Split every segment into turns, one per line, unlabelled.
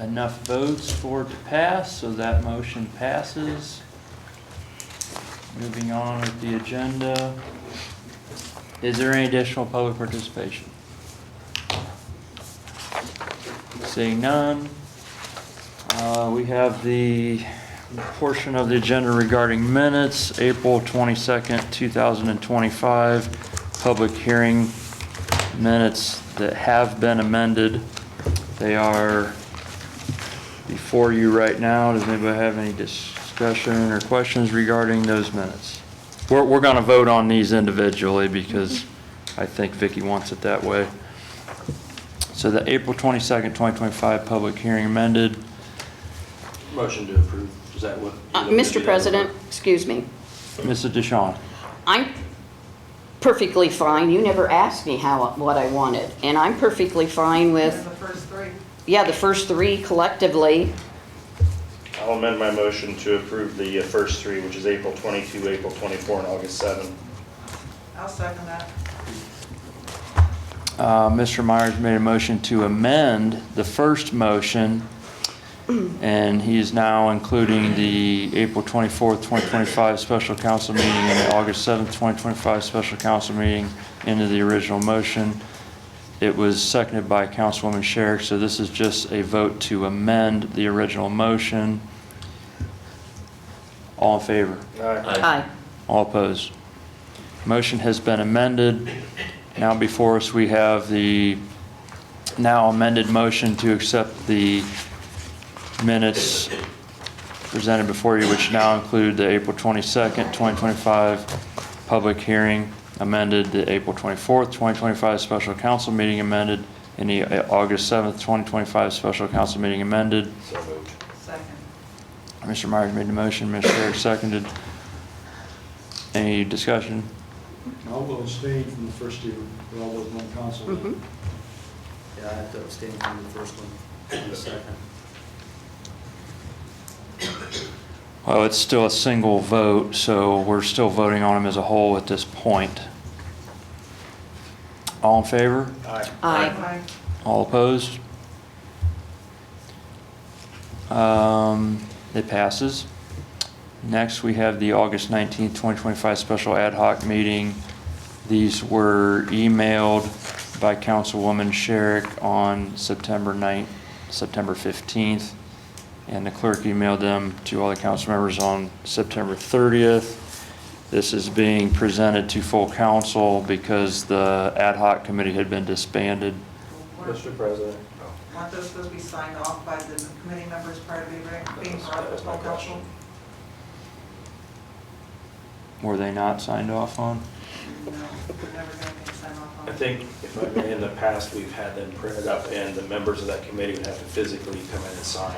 enough votes for it to pass, so that motion passes. Moving on with the agenda. Is there any additional public participation? Seeing none. Uh, We have the portion of the agenda regarding minutes, April 22nd, 2025, public hearing minutes that have been amended. They are before you right now. Does anybody have any discussion or questions regarding those minutes? We're, we're going to vote on these individually because I think Vicky wants it that way. So the April 22nd, 2025 public hearing amended.
Motion to approve, is that what?
Uh, Mr. President, excuse me.
Mrs. DeShawn,
I'm perfectly fine. You never asked me how, what I wanted. And I'm perfectly fine with,
The first three.
yeah, the first three collectively.
I'll amend my motion to approve the uh, first three, which is April 22, April 24, and August 7.
I'll second that.
uh, Mr. Myers made a motion to amend the first motion, and he is now including the April 24th, 2025 special council meeting and the August 7th, 2025 special council meeting into the original motion. It was seconded by Councilwoman Sherrick, so this is just a vote to amend the original motion. All in favor?
Aye.
Aye.
All opposed. Motion has been amended. Now before us, we have the now amended motion to accept the minutes presented before you, which now include the April 22nd, 2025 public hearing amended, the April 24th, 2025 special council meeting amended, and the uh, August 7th, 2025 special council meeting amended.
So moved.
Second.
Mr. Myers made the motion, Ms. Sherrick seconded. Any discussion?
I will abstain from the first two, but I was on council.
Mhm.
Yeah, I have to abstain from the first one and the second.
Well, it's still a single vote, so we're still voting on them as a whole at this point. All in favor?
Aye.
Aye.
All opposed? Um, It passes. Next, we have the August 19th, 2025 special ad hoc meeting. These were emailed by Councilwoman Sherrick on September 9th, September 15th, and the clerk emailed them to all the council members on September 30th. This is being presented to full council because the ad hoc committee had been disbanded.
Weren't
Mr. President.
weren't those supposed to be signed off by the committee members prior to being re- being brought up to full council?
Were they not signed off on?
No, we're never going to sign off on
I
it.
think, if I may, in the past, we've had them printed up, and the members of that committee would have to physically come in and sign,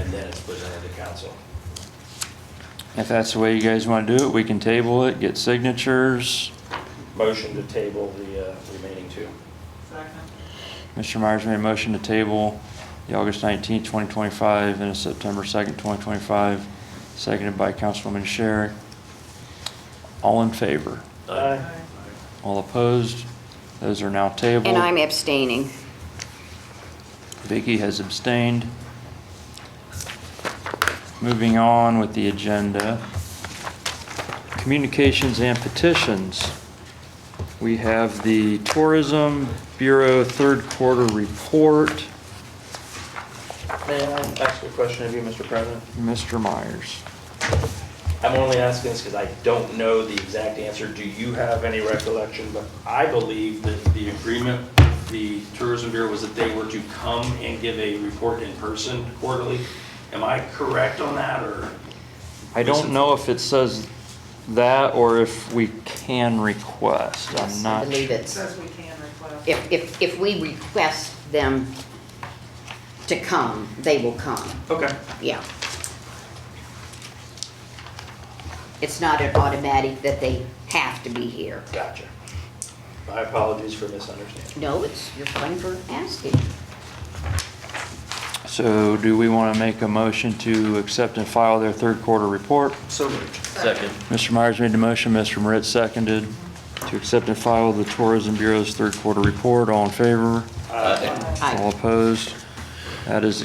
and then it's presented to council.
If that's the way you guys want to do it, we can table it, get signatures.
Motion to table the uh, remaining two.
Second.
Mr. Myers made a motion to table the August 19, 2025, and a September 2nd, 2025, seconded by Councilwoman Sherrick. All in favor?
Aye.
Aye.
All opposed? Those are now tabled.
And I'm abstaining.
Vicky has abstained. Moving on with the agenda. Communications and petitions. We have the Tourism Bureau Third Quarter Report,
May I ask a question of you, Mr. President?
Mr. Myers.
I'm only asking this because I don't know the exact answer. Do you have any recollection? But I believe that the agreement, with the Tourism Bureau, was that they were to come and give a report in person quarterly. Am I correct on that, or?
I don't know if it says that or if we can request. I'm
Yes, I
not.
believe
It
it's,
says we can request.
if, if, if we request them to come, they will come.
Okay.
Yeah. It's not an automatic that they have to be here.
Gotcha. My apologies for misunderstanding.
No, it's, you're fine for asking.
So do we want to make a motion to accept and file their third quarter report?
So moved.
Second.
Mr. Myers made the motion, Mr. Moritz seconded to accept and file the Tourism Bureau's third quarter report. All in favor?
Aye.
Aye.
All opposed? That is